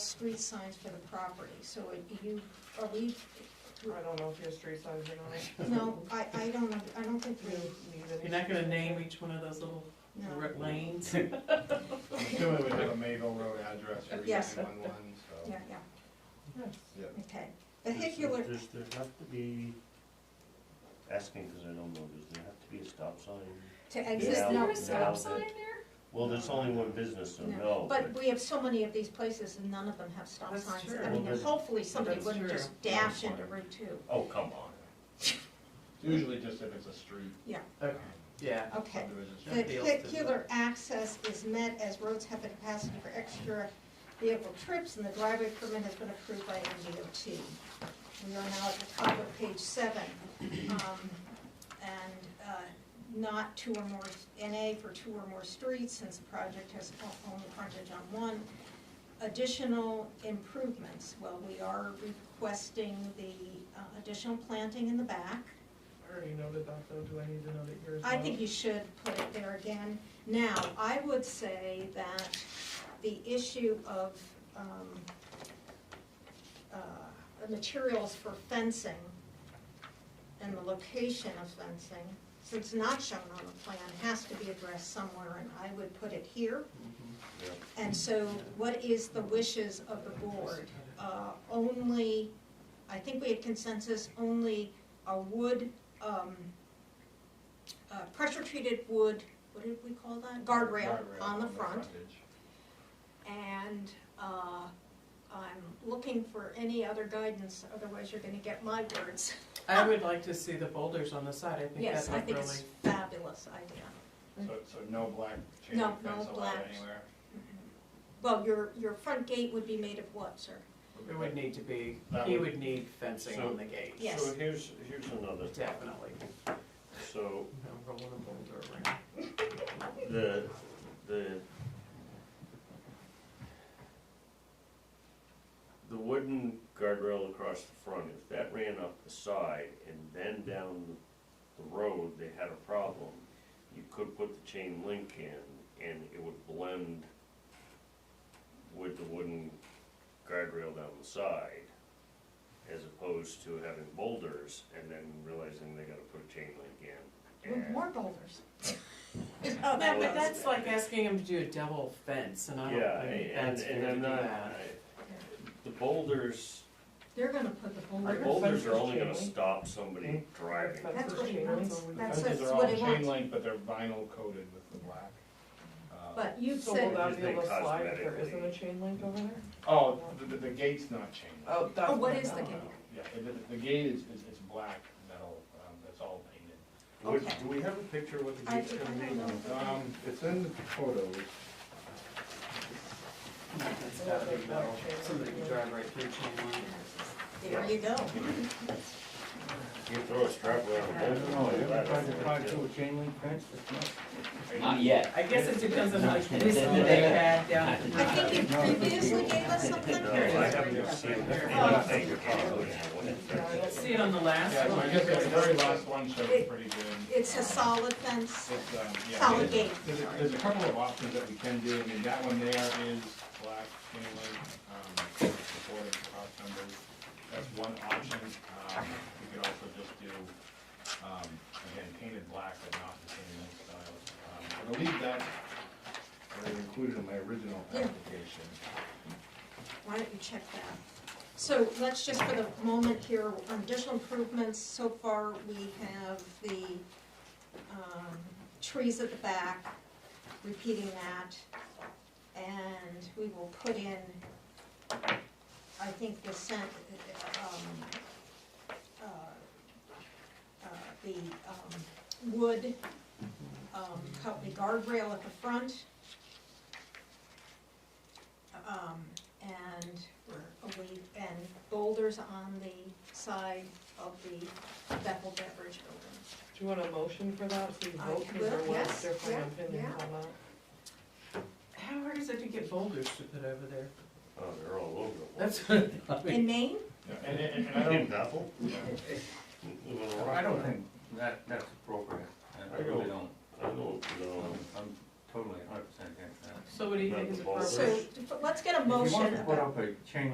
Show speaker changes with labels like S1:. S1: street signs for the property, so it- you, are we,
S2: I don't know if your street signs are gonna.
S1: no, I, I don't, know. I don't think we,
S3: You're not gonna name each one of those little
S1: no.
S3: direct lanes?
S4: I'm assuming we have a Mayville Road address for each
S1: Yes.
S4: one, one, so.
S1: Yeah, yeah,
S4: Yeah.
S1: okay. Vehicular,
S5: Does there have to be, asking because I don't know, does there have to be a stop sign?
S1: to
S5: Is
S1: exist,
S5: Yeah.
S1: no,
S5: there a stop sign
S3: there?
S5: Well, there's only one business, so
S1: no,
S5: no,
S1: but
S5: but
S1: we have so many of these places and none of them have stop
S3: That's
S1: signs.
S3: true.
S1: I mean,
S5: Well, but-
S1: hopefully somebody
S3: That's
S1: wouldn't
S3: true.
S1: just dash into
S4: Fine.
S1: Route Two.
S5: Oh, come on.
S4: Usually just if it's a street.
S1: Yeah.
S4: um,
S3: Yeah.
S1: Okay.
S4: subdivision.
S1: The
S3: Appeals to the-
S1: vehicular access is met as roads have the capacity for extra vehicle trips and the driveway permit has been approved by MDOT. We are now at the top of page seven. um, And uh, not two or more, NA for two or more streets since the project has o- only frontage on one. Additional improvements, well, we are requesting the uh, additional planting in the back.
S2: I already noted that though, do I need to note it here as well?
S1: I think you should put it there again. Now, I would say that the issue of, um, uh, materials for fencing and the location of fencing, since not shown on the plan, has to be addressed somewhere, and I would put it here. And so what is the wishes of the board? Uh, only, I think we had consensus, only a wood, um, uh, pressure-treated wood, what did we call that? Guardrail
S4: Guardrail
S1: on the front.
S4: frontage.
S1: And, uh, I'm looking for any other guidance, otherwise you're gonna get my words.
S3: I would like to see the boulders on the side, I think
S1: Yes,
S3: that's
S1: I
S3: like
S1: think
S3: really.
S1: it's fabulous idea.
S4: So, so no black chain
S1: No,
S4: link
S1: no
S4: fence allowed
S1: black.
S4: anywhere?
S1: Well, your, your front gate would be made of what, sir?
S3: It would need to be,
S4: That
S3: he
S4: would-
S3: would need fencing
S5: So-
S3: on the gate,
S1: Yeah. Yes.
S5: So here's, here's another,
S3: definitely.
S5: so
S3: I'm Rolling a boulder around.
S5: the, the, the wooden guardrail across the front, if that ran up the side and then down the road, they had a problem, you could put the chain link in and it would blend with the wooden guardrail down the side, as opposed to having boulders and then realizing they gotta put a chain link in.
S1: With
S5: and-
S1: More boulders.
S3: Oh, that,
S5: Well,
S3: but that's like asking him to do a double fence, and I don't
S5: Yeah,
S3: think
S5: and,
S3: that's fair
S5: and
S3: to
S5: I'm
S3: do
S5: not,
S3: that.
S5: the boulders,
S1: They're gonna put the
S5: the
S1: boulders.
S5: boulders are
S2: fences
S5: only gonna
S2: chain link?
S5: stop somebody
S3: Hmm?
S5: driving.
S1: That's
S2: for
S1: what he
S2: chain
S1: wants.
S2: link?
S1: That's
S4: Fences
S1: that's
S4: are
S1: what
S4: all
S1: it
S4: chain
S1: wants.
S4: link, but they're vinyl coated with the black. Uh,
S1: But you
S2: So will
S1: said,
S2: that be able to
S5: Because they
S2: slide if there
S5: cosmetically-
S2: isn't a chain link over there?
S4: Oh, the, the- the gate's not chain link.
S2: Oh, that's.
S1: oh, what
S2: fine.
S1: is the
S2: No.
S1: gate?
S4: Yeah, the- the, the gate is, is, it's black metal, um, that's all painted.
S5: Would-
S1: Okay.
S5: Do we have a picture of what the
S1: I-
S5: gate's
S1: I
S5: gonna
S1: don't know.
S5: be?
S4: Um, it's in the photos.
S3: It's gotta be metal. Somebody can drive right through chain link.
S1: There you go.
S5: You can throw a strap around a boulder.
S6: chain link fence?
S7: Not yet.
S3: I guess it depends on like this one they had down.
S1: I think you previously gave us something.
S5: No, I haven't seen anything.
S3: Let's see it on the
S4: Yeah,
S3: last
S4: so
S3: one.
S4: I guess the very last one shows pretty good.
S1: It's a solid fence,
S4: It's, um, yeah.
S1: solid
S4: there's-
S1: gate.
S4: There's, a- there's a couple of options that we can do, I mean, that one there is black chain link, um, supported cross members. That's one option, um, we could also just do, um, again, painted black, but not the chain link style. Um, I believe that's what I included in my original
S1: Yeah.
S4: application.
S1: Why don't you check that? So let's just for the moment here, on additional improvements, so far we have the um, trees at the back, repeating that. And we will put in, I think the sent, um, uh, uh, the um, wood, um, cut the guardrail at the front. Um, and we're away, and boulders on the side of the Bethel Beverage Building.
S2: Do you want a motion for that, so you
S1: I
S2: vote, because there
S1: will, yes,
S2: was different
S1: yeah,
S2: opinions
S1: yeah.
S2: on that?
S3: How hard is it to get boulders to put over there?
S5: Oh, they're all over the place.
S3: That's what I
S1: In
S3: mean.
S1: Maine?
S4: Yeah, And, and, and I
S5: In
S4: don't,
S5: Bethel?
S6: I don't think that, that's appropriate. I- I really don't.
S5: I don't know.
S6: I'm-
S1: totally, hundred percent against that.
S8: So what do you think is
S4: Not the
S8: appropriate?
S4: boulders.
S2: So, but let's get a
S1: If you
S2: motion
S1: want
S2: about.
S1: to put up a chain